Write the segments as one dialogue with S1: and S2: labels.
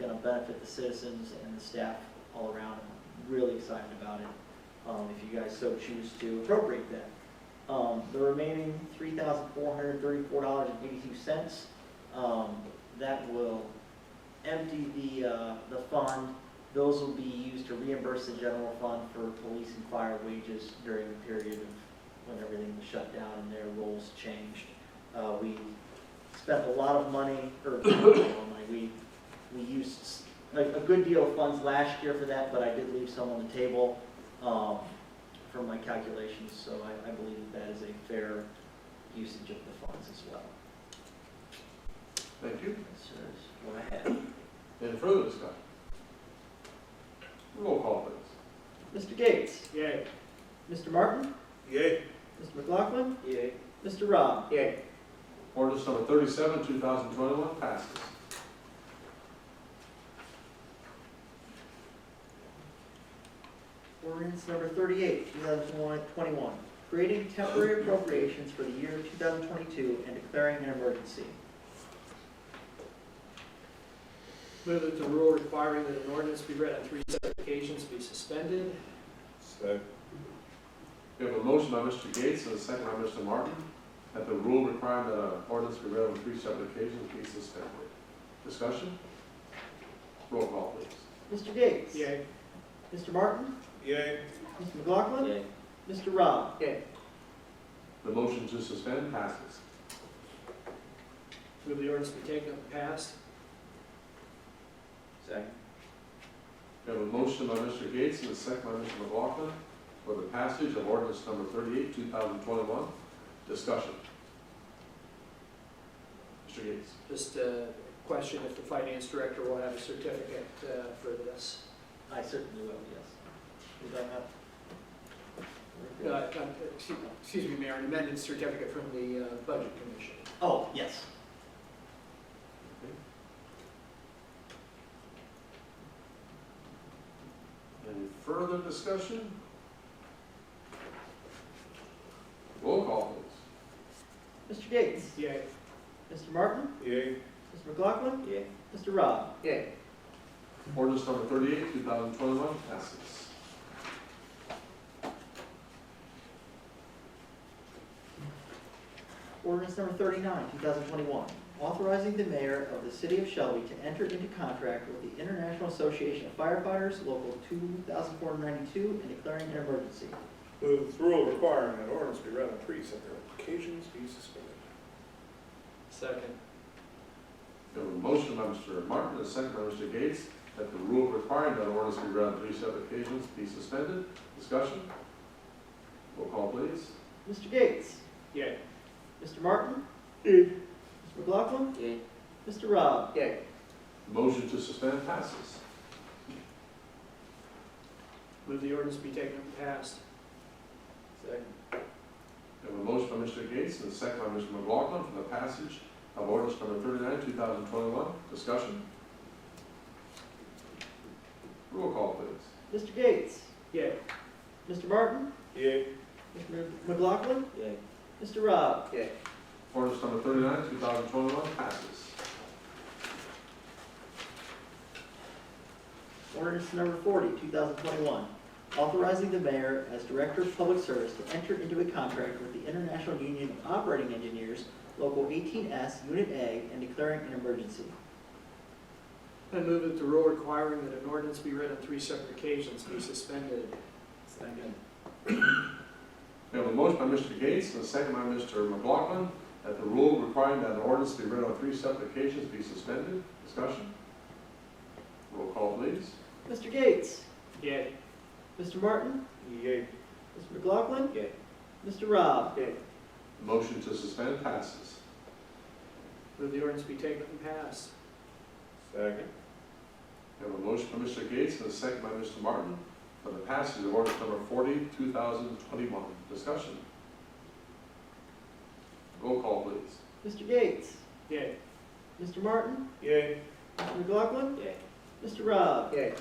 S1: gonna benefit the citizens and the staff all around. I'm Really excited about it, um, if you guys so choose to appropriate that. Um, the remaining three thousand four hundred thirty-four dollars and eighty-two cents, um, that will empty the, uh, the fund. Those will be used to reimburse the general fund for police and fire wages during the period of when everything was shut down and their roles changed. Uh, we spent a lot of money, or, not a lot of money, we, we used s- a, a good deal of funds last year for that, but I did leave some on the table, um, for my calculations, so I, I believe that that is a fair usage of the funds as well.
S2: Thank you.
S1: That's what I have.
S2: Any further discussion? Roll call, please.
S1: Mr. Gates?
S3: Yay.
S1: Mr. Martin?
S3: Yay.
S1: Mr. McLaughlin?
S3: Yay.
S1: Mr. Rob?
S3: Yay.
S2: Ordinance number thirty-seven, two thousand twenty-one passes.
S1: Ordinance number thirty-eight, two thousand twenty-one, creating temporary appropriations for the year two thousand twenty-two and declaring an emergency.
S3: Move that the rule requiring that an ordinance be read on three separate occasions be suspended.
S4: Second.
S2: We have a motion by Mr. Gates and a second by Mr. Martin that the rule requiring that an ordinance be read on three separate occasions be suspended. Discussion? Roll call, please.
S1: Mr. Gates?
S3: Yay.
S1: Mr. Martin?
S4: Yay.
S1: Mr. McLaughlin? Mr. Rob?
S3: Yay.
S2: The motion to suspend passes.
S3: Move the ordinance be taken up and passed.
S4: Second.
S2: We have a motion by Mr. Gates and a second by Mr. McLaughlin for the passage of ordinance number thirty-eight, two thousand twenty-one. Discussion? Mr. Gates?
S3: Just a question if the finance director will have a certificate uh, for this.
S1: I certainly will, yes. Is that not?
S3: Uh, uh, excuse- Excuse me, Mayor, an amended certificate from the uh, Budget Commission.
S1: Oh, yes.
S2: Any further discussion? Roll call, please.
S1: Mr. Gates?
S3: Yay.
S1: Mr. Martin?
S4: Yay.
S1: Mr. McLaughlin?
S4: Yay.
S1: Mr. Rob?
S3: Yay.
S2: Ordinance number thirty-eight, two thousand twenty-one passes.
S1: Ordinance number thirty-nine, two thousand twenty-one, authorizing the mayor of the city of Shelby to enter into contract with the International Association of Firefighters, local two thousand four hundred ninety-two, and declaring an emergency.
S4: Move the rule requiring that ordinance be read on three separate occasions be suspended.
S3: Second.
S2: We have a motion by Mr. Martin, and a second by Mr. Gates, that the rule requiring that ordinance be read on three separate occasions be suspended. Discussion? Roll call, please.
S1: Mr. Gates?
S3: Yay.
S1: Mr. Martin? Mr. McLaughlin?
S4: Yay.
S1: Mr. Rob?
S3: Yay.
S2: Motion to suspend passes.
S3: Move the ordinance be taken up and passed.
S4: Second.
S2: We have a motion by Mr. Gates and a second by Mr. McLaughlin for the passage of ordinance number thirty-nine, two thousand twenty-one. Discussion? Roll call, please.
S1: Mr. Gates?
S3: Yay.
S1: Mr. Martin?
S4: Yay.
S1: Mr. McLaughlin?
S4: Yay.
S1: Mr. Rob?
S3: Yay.
S2: Ordinance number thirty-nine, two thousand twenty-one passes.
S1: Ordinance number forty, two thousand twenty-one, authorizing the mayor as director of public service to enter into a contract with the International Union of Operating Engineers, Local eighteen S, Unit A, and declaring an emergency.
S3: I move that the rule requiring that an ordinance be read on three separate occasions be suspended. Second.
S2: We have a motion by Mr. Gates and a second by Mr. McLaughlin that the rule requiring that an ordinance be read on three separate occasions be suspended. Discussion? Roll call, please.
S1: Mr. Gates?
S3: Yay.
S1: Mr. Martin?
S4: Yay.
S1: Mr. McLaughlin?
S4: Yay.
S1: Mr. Rob?
S3: Yay.
S2: Motion to suspend passes.
S3: Move the ordinance be taken up and passed.
S4: Second.
S2: We have a motion by Mr. Gates and a second by Mr. Martin for the passage of ordinance number forty, two thousand twenty-one. Discussion? Roll call, please.
S1: Mr. Gates?
S3: Yay.
S1: Mr. Martin?
S4: Yay.
S1: Mr. McLaughlin?
S4: Yay.
S1: Mr. Rob?
S3: Yay.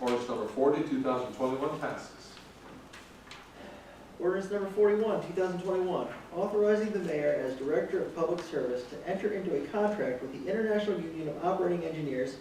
S2: Ordinance number forty, two thousand twenty-one passes.
S1: Ordinance number forty-one, two thousand twenty-one, authorizing the mayor as director of public service to enter into a contract with the International Union of Operating Engineers,